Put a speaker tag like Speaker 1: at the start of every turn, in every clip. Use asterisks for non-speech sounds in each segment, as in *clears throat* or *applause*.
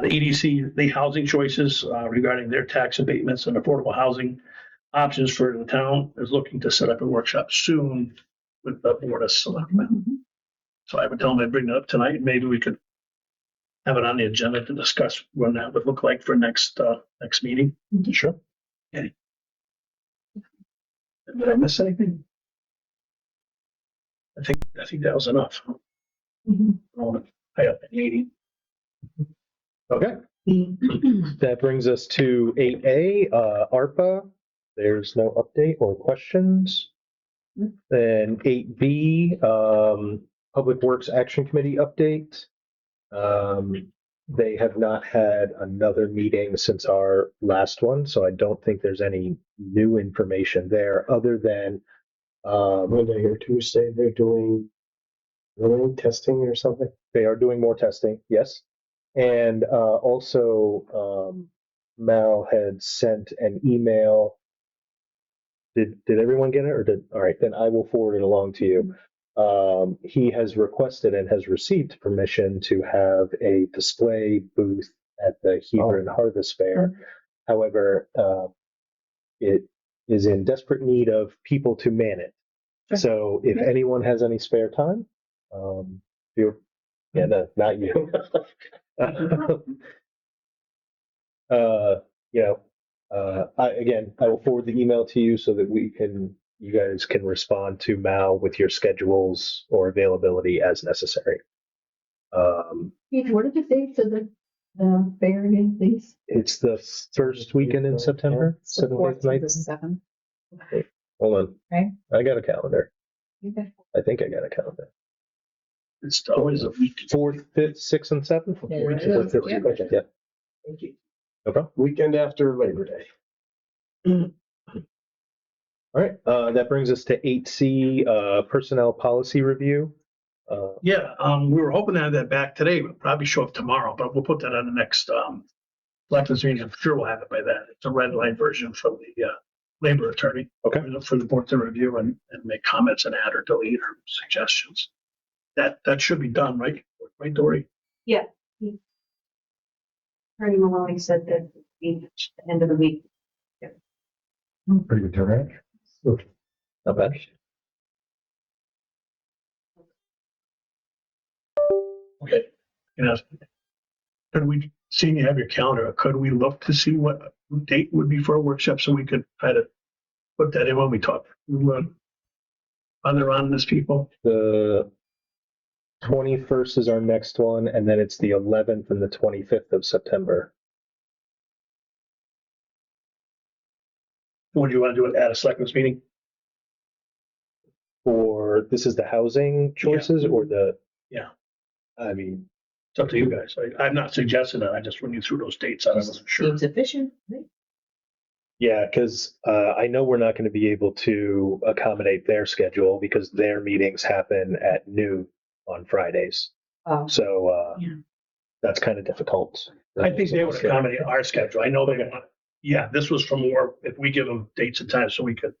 Speaker 1: the EDC, the housing choices uh, regarding their tax abatements and affordable housing options for the town is looking to set up a workshop soon with the Board of Selectmen.
Speaker 2: Mm-hmm.
Speaker 1: So I would tell them I'd bring it up tonight. Maybe we could have it on the agenda to discuss what that would look like for next, uh, next meeting. Sure. Okay. Did I miss anything? I think, I think that was enough.
Speaker 2: Mm-hmm.
Speaker 1: Um, I have an eighty.
Speaker 3: Okay, that brings us to eight A, uh, ARPA. There's no update or questions. Then eight B, um, Public Works Action Committee update. Um, they have not had another meeting since our last one, so I don't think there's any new information there other than, um,
Speaker 4: Monday or Tuesday, they're doing running testing or something.
Speaker 3: they are doing more testing, yes. And uh, also, um, Mal had sent an email. Did did everyone get it, or did all right? Then I will forward it along to you. Um, he has requested and has received permission to have a display booth at the Hebron Harvest Fair. However, uh, it is in desperate need of people to man it.
Speaker 1: Sure.
Speaker 3: So, if
Speaker 1: Yeah.
Speaker 3: anyone has any spare time, um, you yeah, no, not you. *laughs* uh, you know, uh, I, again, I will forward the email to you so that we can, you guys can respond to Mal with your schedules or availability as necessary. Um,
Speaker 2: Pete, what are the dates of the, the fair again, please?
Speaker 3: it's the first weekend in September, seventh, eighth, ninth.
Speaker 2: seventh.
Speaker 3: Hold
Speaker 2: Okay.
Speaker 3: on, I got a calendar.
Speaker 2: Okay.
Speaker 3: I think I got a calendar.
Speaker 1: It's always a week.
Speaker 3: Fourth, fifth, sixth, and seventh.
Speaker 2: There it
Speaker 3: Fourth,
Speaker 2: is,
Speaker 3: fifth,
Speaker 2: yeah.
Speaker 3: okay, yeah, no problem.
Speaker 4: Weekend after Labor Day.
Speaker 3: All right, uh, that brings us to eight C, uh, personnel policy review. Uh,
Speaker 1: Yeah, um, we were hoping to have that back today, but probably show up tomorrow, but we'll put that on the next, um, selectmen's meeting. I'm sure we'll have it by then. It's a red line version from the, uh, labor attorney.
Speaker 3: Okay.
Speaker 1: For the board to review and, and make comments and add or delete or suggestions. That, that should be done, right? Right, Dory?
Speaker 2: Attorney Maloney said that the end of the week.
Speaker 4: Pretty good turnout.
Speaker 3: not bad.
Speaker 1: Okay. You know, could we, seeing you have your calendar, could we look to see what date would be for a workshop so we could try to put that in when we talk? to, uh, Other on this people?
Speaker 3: The twenty-first is our next one, and then it's the eleventh and the twenty-fifth of September.
Speaker 1: Would you want to do it at a selectmen's meeting?
Speaker 3: Or this is the housing choices or the?
Speaker 1: Yeah.
Speaker 3: I mean,
Speaker 1: It's up to you guys. I, I'm not suggesting that. I just run you through those dates. I wasn't sure.
Speaker 2: Seems efficient, right?
Speaker 3: yeah, because, uh, I know we're not gonna be able to accommodate their schedule because their meetings happen at noon on Fridays.
Speaker 2: Um,
Speaker 3: So, uh,
Speaker 2: Yeah.
Speaker 3: that's kind of difficult.
Speaker 1: I think they would accommodate our schedule. I know they're gonna, yeah, this was from more, if we give them dates and times so we could.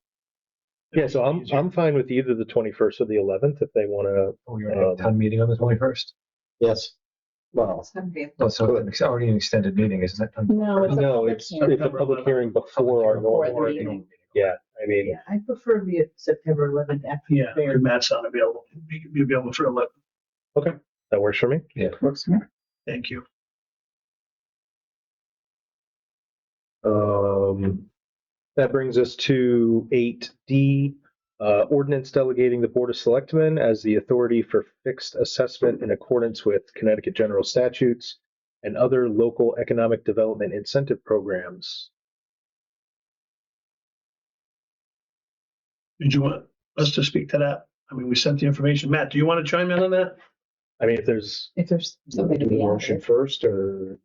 Speaker 3: Yeah, so I'm I'm fine with either the 21st or the 11th if they want to.
Speaker 5: We already have a town meeting on the twenty-first.
Speaker 4: Yes. Well,
Speaker 2: it's gonna be-
Speaker 5: No, so it's already an extended meeting, isn't it?
Speaker 2: No, it's. a
Speaker 3: No,
Speaker 2: public
Speaker 3: it's
Speaker 2: hearing.
Speaker 3: it's a public hearing before our
Speaker 2: Before the
Speaker 3: normal.
Speaker 2: meeting.
Speaker 3: meeting. Yeah, I mean,
Speaker 2: Yeah, I prefer the September eleventh after the
Speaker 1: Yeah,
Speaker 2: fair.
Speaker 1: Matt's not available. Be, be available for eleven.
Speaker 3: that works for me.
Speaker 2: Works for me.
Speaker 1: Thank you.
Speaker 3: Um, that brings us to eight D, uh, ordinance delegating the Board of Selectmen as the authority for fixed assessment in accordance with Connecticut general statutes and other local economic development incentive programs.
Speaker 1: Did you want us to speak to that? I mean, we sent the information. Matt, do you want to chime in on that?
Speaker 3: I mean, if there's
Speaker 2: If there's
Speaker 4: do
Speaker 2: something to
Speaker 4: the
Speaker 2: be
Speaker 4: motion
Speaker 2: added.
Speaker 4: first or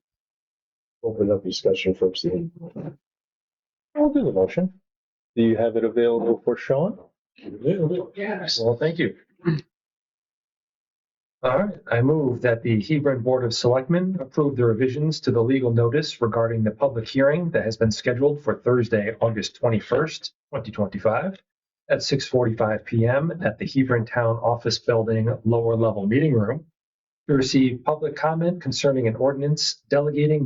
Speaker 4: open up discussion first? then?
Speaker 3: I'll do the motion. Do you have it available for Sean?
Speaker 5: Yes. Well, thank you. *clears throat* All right, I move that the Hebron Board of Selectmen approve the revisions to the legal notice regarding the public hearing that has been scheduled for Thursday, August twenty-first, twenty twenty-five at six forty-five PM at the Hebron Town Office Building Lower Level Meeting Room to receive public comment concerning an ordinance delegating the